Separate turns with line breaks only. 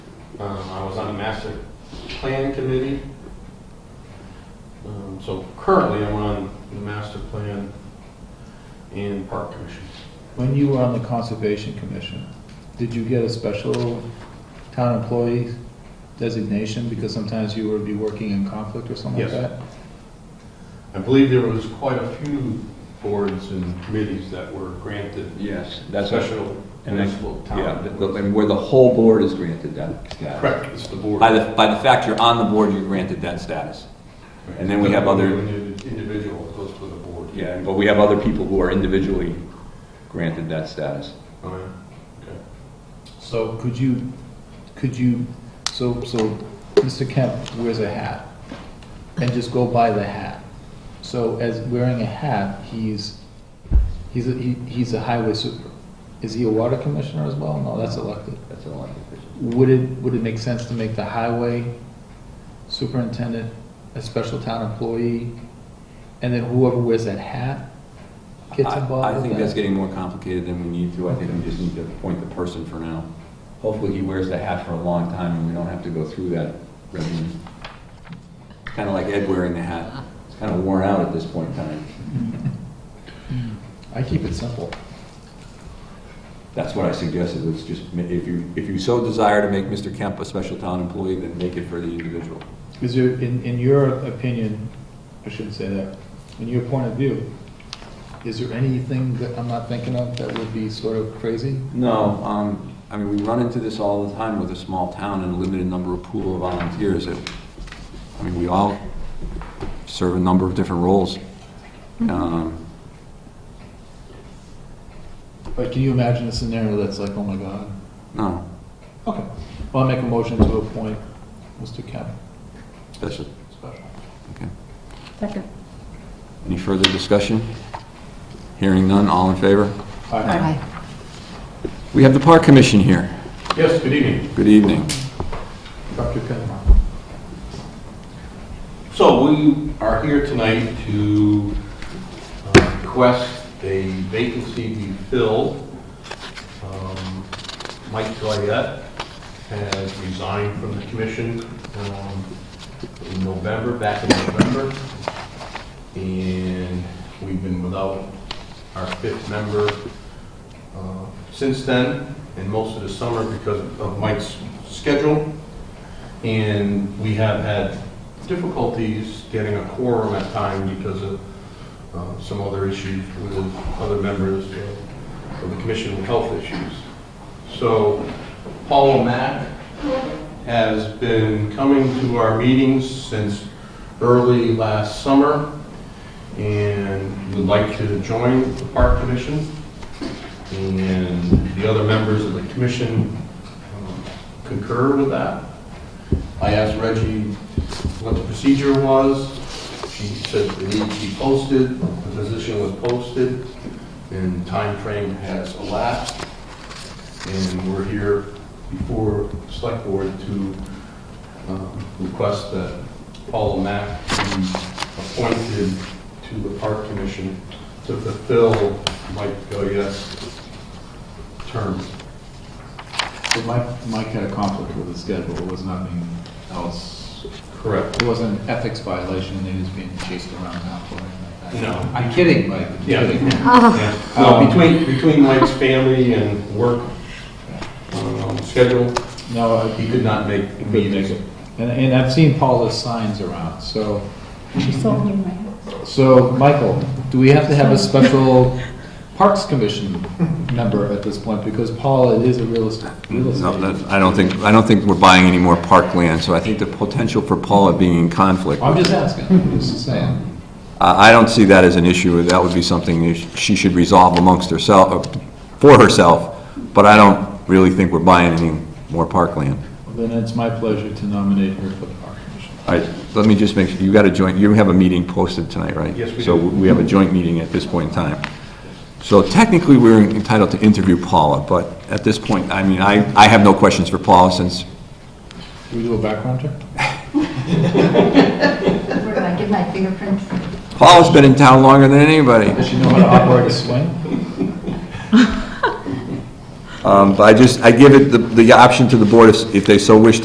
Um, I was on the master plan committee. Um, So currently, I'm on the master plan and park commission.
When you were on the Conservation Commission, did you get a special town employee designation? Because sometimes you would be working in conflict or something like
Yes.
that?
I believe there was quite a few boards and committees that were granted
Yes, that's, what-
special
and I-
municipal
yeah,
town.
the- the-
boards.
and where the whole board is granted that status.
Correct, it's the board.
By the, by the fact you're on the board, you're granted that status. and then we have other-
Indi- Individual, it goes to the board.
Yeah, but we have other people who are individually granted that status.
Oh, yeah, okay.
So could you, could you, so, so Mr. Kemp wears a hat, and just go by the hat. So as wearing a hat, he's, he's, a- he- he's a highway super. Is he a water commissioner as well? No, that's elected.
That's an elected official.
Would it, would it make sense to make the highway superintendent a special town employee? And then whoever wears that hat gets
I-
involved
I
with that?
think that's getting more complicated than we need to. I think we just need to appoint the person for now. Hopefully, he wears the hat for a long time, and we don't have to go through that regimen. Kind of like Ed wearing the hat. It's kind of worn out at this point in time.
I keep it simple.
That's what I suggested, was just, ma- if you, if you so desire to make Mr. Kemp a special town employee, then make it for the individual.
Is there, in, in your opinion, I shouldn't say that, in your point of view, is there anything that I'm not thinking of that would be sort of crazy?
No, um, I mean, we run into this all the time with a small town and a limited number of pool of volunteers. It- I mean, we all serve a number of different roles. Um,
But can you imagine a scenario that's like, oh my God?
No,
Okay, well, I'll make a motion to appoint Mr. Kemp
special,
special.
okay.
Second.
Any further discussion? Hearing none, all in favor?
All right.
Aye.
We have the Park Commission here.
Yes, good evening.
Good evening.
Dr. Kemp.
So we are here tonight to uh, request a vacancy be filled. Um, Mike Goyette has resigned from the commission um, in November, back in November. And we've been without our fifth member uh, since then, and most of the summer because of Mike's schedule. And we have had difficulties getting a quorum at time because of uh, some other issues with other members of the commission with health issues. So Paul O'Mac has been coming to our meetings since early last summer and would like to join the park commission. And the other members of the commission um, concur with that. I asked Reggie what the procedure was. She said it needed to be posted, the position was posted, and time frame has elapsed. And we're here before the select board to um, request that Paula Mack be appointed to the park commission to fulfill Mike Goyette's term.
So Mike, Mike had a conflict with the schedule, it was nothing else,
Correct.
it wasn't an ethics violation, he was being chased around town for anything like that.
No.
I'm kidding, Mike, I'm
Yeah.
kidding.
Yeah. No, between, between Mike's family and work um, schedule,
No, I-
he could not make the meetings.
And, and I've seen Paula's signs around, so,
She sold me my house.
so, Michael, do we have to have a special Parks Commission member at this point? Because Paula is a real estate, real
No,
estate.
that- I don't think, I don't think we're buying any more parkland, so I think the potential for Paula being in conflict, I
I'm just asking, I'm just saying.
I don't see that as an issue, that would be something that she should resolve amongst herself, uh, for herself, but I don't really think we're buying any more parkland.
Then it's my pleasure to nominate her for the Park Commission.
All right, let me just make, sure you got a joint, you have a meeting posted tonight, right?
Yes, we
So
do.
we have a joint meeting at this point in time. So technically, we're entitled to interview Paula, but at this point, I mean, I, I have no questions for Paula since
Do we do a background check?
Where do I get my fingerprints?
Paula's been in town longer than anybody.
Does she know how to operate a swing?
Um, But I just, I give it the, the option to the board if if they so wish